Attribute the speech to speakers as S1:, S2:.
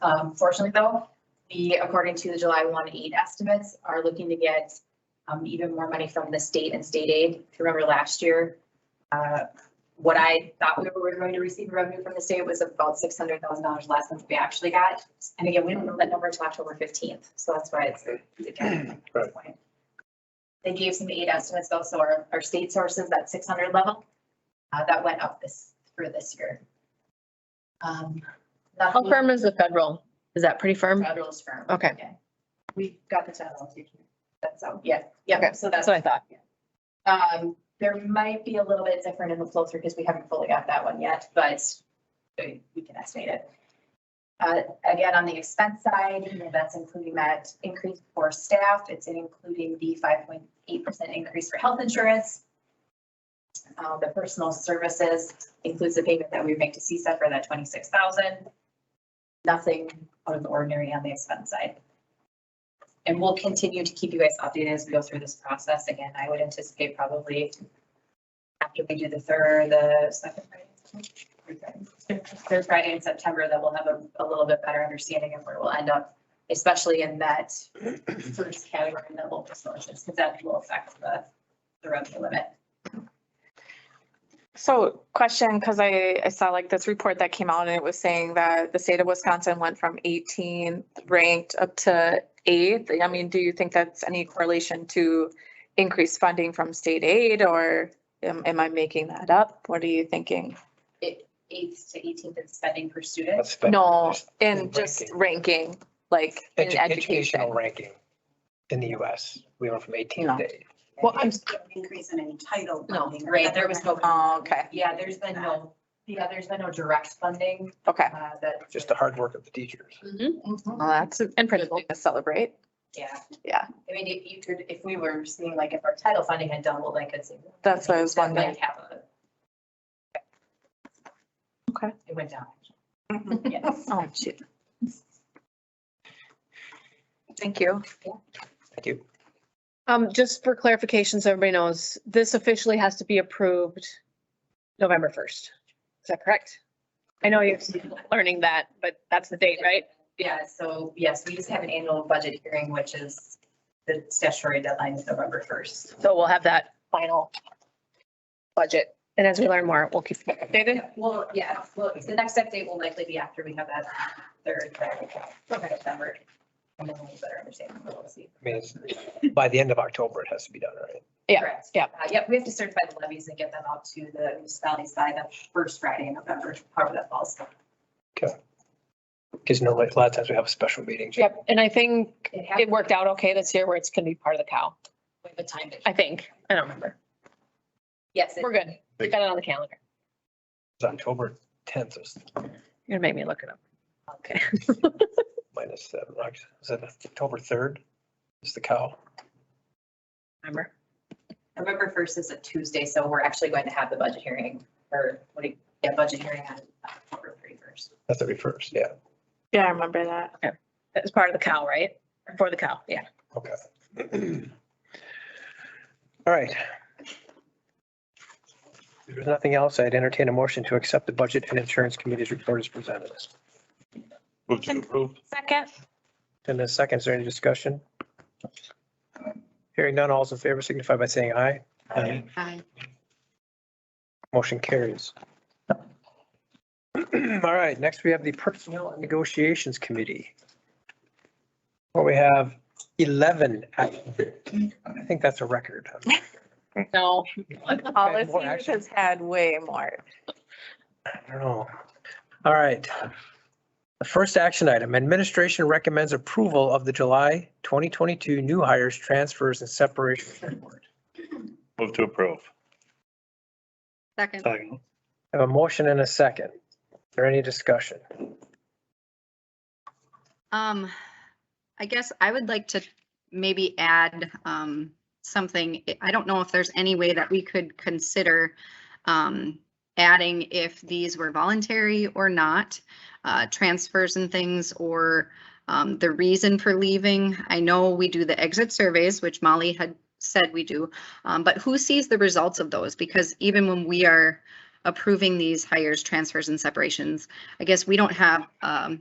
S1: Um, fortunately though, we, according to the July one aid estimates, are looking to get um, even more money from the state and state aid. If you remember last year, uh, what I thought we were going to receive revenue from the state was about six hundred thousand dollars less than what we actually got. And again, we don't know that number until October fifteenth, so that's why it's. a- it's a gap at this point. They gave some aid estimates though, so our, our state sources, that six hundred level, uh, that went up this, for this year. Um,
S2: How
S1: nothing-
S2: firm is the federal? Is that pretty firm?
S1: Federal's firm.
S2: Okay.
S1: Yeah. We got the federal taken. That's out, yeah, yeah,
S2: Okay,
S1: so
S2: That's
S1: that's,
S2: what I thought.
S1: um, there might be a little bit different in the flow through because we haven't fully got that one yet, but we we can estimate it. Uh, again, on the expense side, you know, that's including that increase for staff, it's including the five point eight percent increase for health insurance. Uh, the personal services includes the payment that we make to CSA for that twenty-six thousand. Nothing out of the ordinary on the expense side. And we'll continue to keep you guys updated as we go through this process. Again, I would anticipate probably after we do the third, the second Friday, third Friday in September, that we'll have a, a little bit better understanding of where we'll end up, especially in that first category, the local sources, because that will affect the, the revenue limit.
S3: So question, because I, I saw like this report that came out and it was saying that the state of Wisconsin went from 18 ranked up to eighth. I mean, do you think that's any correlation to increased funding from state aid or am, am I making that up? What are you thinking?
S1: Eighth to eighteenth in spending per student.
S4: That's fine.
S3: No,
S4: Just
S3: in just ranking, like in
S4: edu- Educational
S3: education.
S4: ranking in the US, we went from 18
S3: No.
S4: to 8.
S3: Well, I'm-
S5: There's no Increase in any title.
S1: No,
S5: funding or
S1: right, there was no-
S3: Oh, okay,
S1: Yeah, there's been no, yeah, there's been no direct funding,
S3: okay.
S1: uh, that.
S4: Just the hard work of the teachers.
S1: Mhm.
S3: Well, that's a
S2: And
S3: good
S2: principal.
S3: thing to celebrate.
S1: Yeah.
S3: Yeah.
S1: I mean, if you could, if we were seeing like if our title funding had doubled, I could see.
S3: That's what I was
S1: That might
S3: wondering.
S1: have a-
S3: Okay.
S1: It went down.
S4: Mm-hmm.
S5: Mhm.
S1: Yes.
S3: Oh, shoot. Thank you.
S4: Thank you.
S2: Um, just for clarification, so everybody knows, this officially has to be approved November first. Is that correct? I know you're learning that, but that's the date, right?
S1: Yeah, so yes, we just have an annual budget hearing, which is the statutory deadline is November first.
S2: So we'll have that final budget. And as we learn more, we'll keep you updated.
S1: Well, yeah, well, the next update will likely be after we have that third, Friday of November. And then we'll better understand, we'll see.
S4: I mean, it's, by the end of October, it has to be done, right?
S2: Yeah,
S1: Correct.
S2: yeah.
S1: Uh, Yep, we have to certify the levies and get them out to the municipalities by the first Friday in November, however that falls.
S4: Because no, like, a lot of times we have special meetings.
S2: Yep. And I think
S1: It
S2: it
S1: happened
S2: worked out okay this year where it's gonna be part of the cow,
S1: with the time. that-
S2: I think. I don't remember.
S1: Yes, it-
S2: We're good. We got it on the calendar.
S4: It's October 10th is
S2: You're gonna make me look it up. Okay.
S4: minus seven. Oct- Is that October 3rd? Is the cow?
S2: Remember?
S1: November first is a Tuesday, so we're actually going to have the budget hearing or what do you, yeah, budget hearing on October thirty first.
S4: That's 31st, yeah.
S3: Yeah, I remember that.
S2: That's part of the cow, right? For the cow, yeah.
S4: Okay. All right. If there's nothing else, I'd entertain a motion to accept the Budget and Insurance Committee's report as presented.
S6: Move to approve.
S3: Second.
S4: In a second, is there any discussion? Hearing none, all's in favor signify by saying aye. Aye. Motion carries. All right, next we have the Personnel and Negotiations Committee. Where we have 11, I I think that's a record.
S2: No,
S3: All
S4: Okay,
S3: the
S4: more action.
S3: has had way more.
S4: I don't know. All right. The first action item, administration recommends approval of the July 2022 new hires, transfers and separation report.
S6: Move to approve.
S2: Second.
S6: Second.
S4: I Have a motion and a second. Is there any discussion?
S7: Um, I guess I would like to maybe add, um, something. I- I don't know if there's any way that we could consider, um, adding if these were voluntary or not, uh, transfers and things or, um, the reason for leaving. I know we do the exit surveys, which Molly had said we do, um, but who sees the results of those? Because even when we are approving these hires, transfers and separations, I guess we don't have, um,